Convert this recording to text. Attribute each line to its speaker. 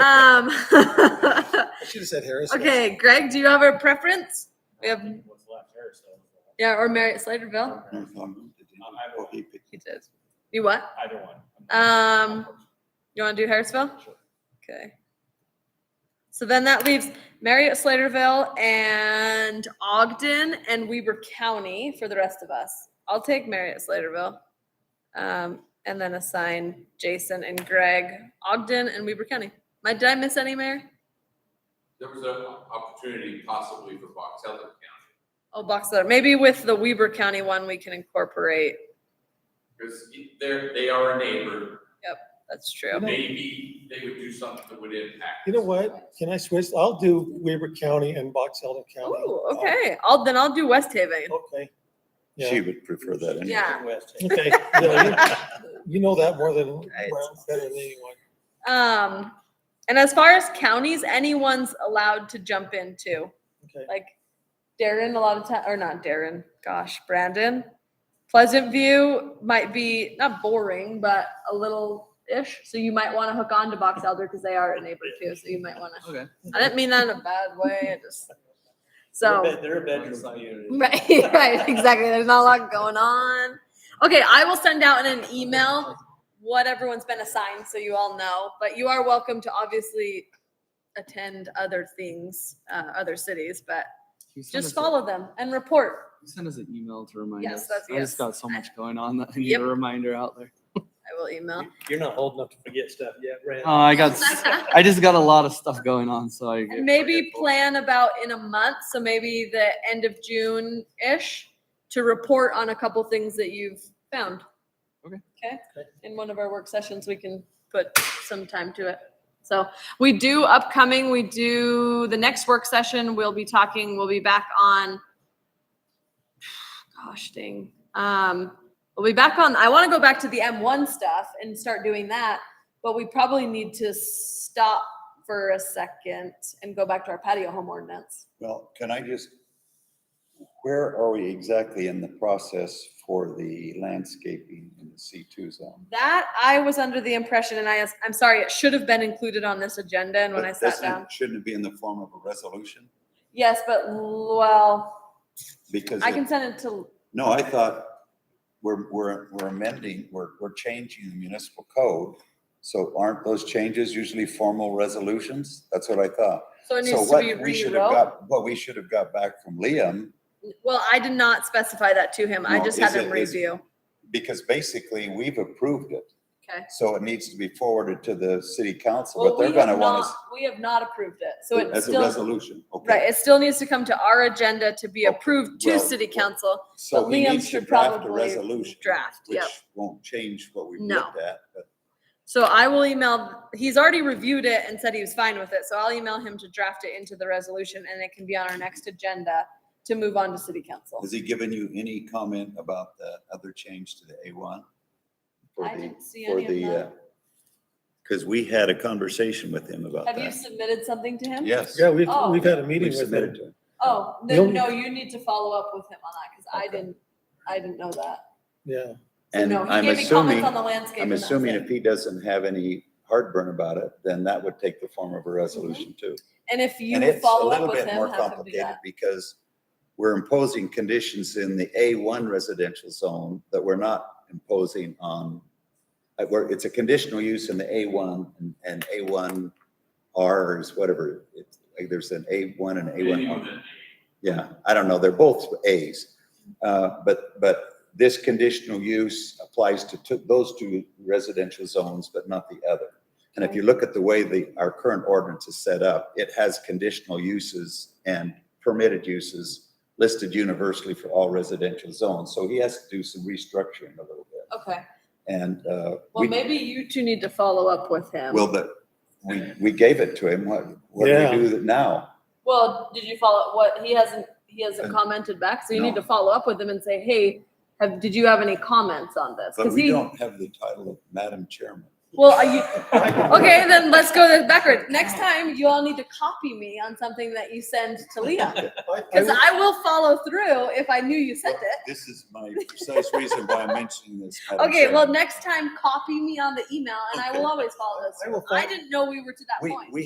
Speaker 1: Um,
Speaker 2: I should have said Harris.
Speaker 1: okay, Greg, do you have a preference? We have,
Speaker 3: What's left, Harrisville.
Speaker 1: yeah, or Marriott Sliderville?
Speaker 3: Um, Either one.
Speaker 1: He did. You what?
Speaker 3: Either one.
Speaker 1: Um, You want to do Harrisville?
Speaker 3: Sure.
Speaker 1: Okay. So then that leaves Marriott Sliderville and Ogden and Weber County for the rest of us. I'll take Marriott Sliderville. Um, and then assign Jason and Greg, Ogden and Weber County. My, did I miss any, Mayor?
Speaker 4: There was an opportunity possibly for Box Elder County,
Speaker 1: Oh, box letter. Maybe with the Weber County one, we can incorporate.
Speaker 4: because they're, they are a neighbor,
Speaker 1: That's true.
Speaker 4: maybe they would do something that would impact.
Speaker 2: You know what? Can I switch? I'll do Weber County and Box Elder County.
Speaker 1: Oh, okay. I'll, then I'll do West Haven.
Speaker 2: Uh, Okay.
Speaker 5: She
Speaker 2: Yeah.
Speaker 5: would prefer that anyway.
Speaker 1: Yeah.
Speaker 2: Okay. Yeah, you- You know that more than, better than anyone.
Speaker 1: Um, and as far as counties, anyone's allowed to jump in too.
Speaker 2: Okay.
Speaker 1: like Darren a lot of time or not Darren, gosh, Brandon. Pleasant View might be not boring, but a little ish. So you might want to hook on to Box Elder because they are a neighbor too. So you might want to.
Speaker 3: Okay.
Speaker 1: I didn't mean that in a bad way. I just so
Speaker 3: They're a bedroom unit.
Speaker 1: right, right, exactly. There's not a lot going on. Okay, I will send out in an email what everyone's been assigned so you all know. But you are welcome to obviously attend other things, uh, other cities, but just follow them and report.
Speaker 6: Send us an email to remind
Speaker 1: Yes,
Speaker 6: us.
Speaker 1: that's-
Speaker 6: I
Speaker 1: yes.
Speaker 6: just got so much going on that I need
Speaker 1: Yep.
Speaker 6: a reminder out there.
Speaker 1: I will email.
Speaker 3: You're not old enough to forget stuff yet, Brad.
Speaker 6: Uh, I got, s- I just got a lot of stuff going on, so I. get
Speaker 1: Maybe
Speaker 6: forgetful.
Speaker 1: plan about in a month, so maybe the end of June-ish, to report on a couple things that you've found.
Speaker 6: Okay.
Speaker 1: Okay, in one of our work sessions, we can put some time to it. So we do upcoming, we do, the next work session, we'll be talking, we'll be back on, gosh dang, um, we'll be back on, I want to go back to the M1 stuff and start doing that, but we probably need to stop for a second and go back to our patio home ordinance.
Speaker 5: Well, can I just, where are we exactly in the process for the landscaping in the C2 zone?
Speaker 1: That I was under the impression, and I, I'm sorry, it should have been included on this agenda and when
Speaker 5: But
Speaker 1: I sat
Speaker 5: doesn't it-
Speaker 1: down.
Speaker 5: Shouldn't it be in the form of a resolution?
Speaker 1: Yes, but, l- well,
Speaker 5: Because,
Speaker 1: I
Speaker 5: it-
Speaker 1: can send it to,
Speaker 5: no, I thought we're, we're, we're amending, we're, we're changing the municipal code. So aren't those changes usually formal resolutions? That's what I thought.
Speaker 1: so it
Speaker 5: So
Speaker 1: needs to be
Speaker 5: what we should have
Speaker 1: rewrote.
Speaker 5: got, what we should have got back from Liam
Speaker 1: Well, I did not specify that to him. I
Speaker 5: No,
Speaker 1: just
Speaker 5: is
Speaker 1: had him
Speaker 5: it- is-
Speaker 1: review.
Speaker 5: because basically we've approved it.
Speaker 1: Okay.
Speaker 5: So it needs to be forwarded to the city council,
Speaker 1: Well,
Speaker 5: but
Speaker 1: we
Speaker 5: they're
Speaker 1: have
Speaker 5: gonna want
Speaker 1: not,
Speaker 5: us
Speaker 1: we have not approved it, so it's
Speaker 5: as a
Speaker 1: still,
Speaker 5: resolution, okay?
Speaker 1: right, it still needs to come to our agenda to be
Speaker 5: Okay,
Speaker 1: approved to
Speaker 5: well,
Speaker 1: city
Speaker 5: well,
Speaker 1: council.
Speaker 5: So
Speaker 1: but
Speaker 5: he
Speaker 1: Liam
Speaker 5: needs to
Speaker 1: should
Speaker 5: draft a
Speaker 1: probably
Speaker 5: resolution.
Speaker 1: draft,
Speaker 5: Which
Speaker 1: yep.
Speaker 5: won't change what we've
Speaker 1: No.
Speaker 5: looked at, but
Speaker 1: So I will email, he's already reviewed it and said he was fine with it, so I'll email him to draft it into the resolution and it can be on our next agenda to move on to city council.
Speaker 5: has he given you any comment about the other change to the A one? For
Speaker 1: I
Speaker 5: the,
Speaker 1: didn't see
Speaker 5: for
Speaker 1: any of
Speaker 5: the, uh,
Speaker 1: that.
Speaker 5: cause we had a conversation with him about
Speaker 1: Have you
Speaker 5: that.
Speaker 1: submitted something to him?
Speaker 5: Yes.
Speaker 2: Yeah, we've,
Speaker 1: Oh.
Speaker 2: we've had a
Speaker 5: we
Speaker 2: meeting with
Speaker 5: submitted
Speaker 2: them.
Speaker 5: to him.
Speaker 1: Oh,
Speaker 2: No.
Speaker 1: then, no, you need to follow up with him on that, because I
Speaker 5: Okay.
Speaker 1: didn't, I didn't know that.
Speaker 2: Yeah.
Speaker 1: So
Speaker 5: And
Speaker 1: no, he
Speaker 5: I'm
Speaker 1: gave me comments
Speaker 5: assuming,
Speaker 1: on the landscape.
Speaker 5: I'm
Speaker 1: and that's
Speaker 5: assuming
Speaker 1: it.
Speaker 5: if he doesn't have any heartburn about it, then that would take the form of a resolution too.
Speaker 1: And if Mm-hmm. you
Speaker 5: And
Speaker 1: would
Speaker 5: it's a
Speaker 1: follow up
Speaker 5: little
Speaker 1: with
Speaker 5: bit more
Speaker 1: him, have him do
Speaker 5: complicated
Speaker 1: that.
Speaker 5: because we're imposing conditions in the A1 residential zone that we're not imposing on, uh, where it's a conditional use in the A1 and- and A1R is whatever. It's like there's an A1 and A1R. Yeah, I don't know. They're both As. Uh, But, but this conditional use applies to two- those two residential zones, but not the other. And if you look at the way the, our current ordinance is set up, it has conditional uses and permitted uses listed universally for all residential zones. So he has to do some restructuring a little bit.
Speaker 1: Okay,
Speaker 5: And, uh,
Speaker 1: well,
Speaker 5: we,
Speaker 1: maybe you two need to follow up with him.
Speaker 5: well, but we, we gave it to him. What, what do
Speaker 2: Yeah.
Speaker 5: we do now?
Speaker 1: Well, did you follow what he hasn't he hasn't
Speaker 5: Uh,
Speaker 1: commented back, so you need
Speaker 5: no.
Speaker 1: to follow up with him and say, hey, have did you have any comments on this?
Speaker 5: But
Speaker 1: Because
Speaker 5: we
Speaker 1: he
Speaker 5: don't have the title of Madam Chairman.
Speaker 1: Well, are you, okay, then let's go this backward. Next time, you all need to copy me on something that you send to Leon. Because I will follow through if I knew you sent it.
Speaker 5: This is my precise reason why I'm mentioning this. Madam
Speaker 1: Okay,
Speaker 5: Chair.
Speaker 1: well, next time, copy me on the email and I will always follow this.
Speaker 2: I will
Speaker 1: I
Speaker 2: follow-
Speaker 1: didn't know we were to that
Speaker 5: We,
Speaker 1: point.
Speaker 5: we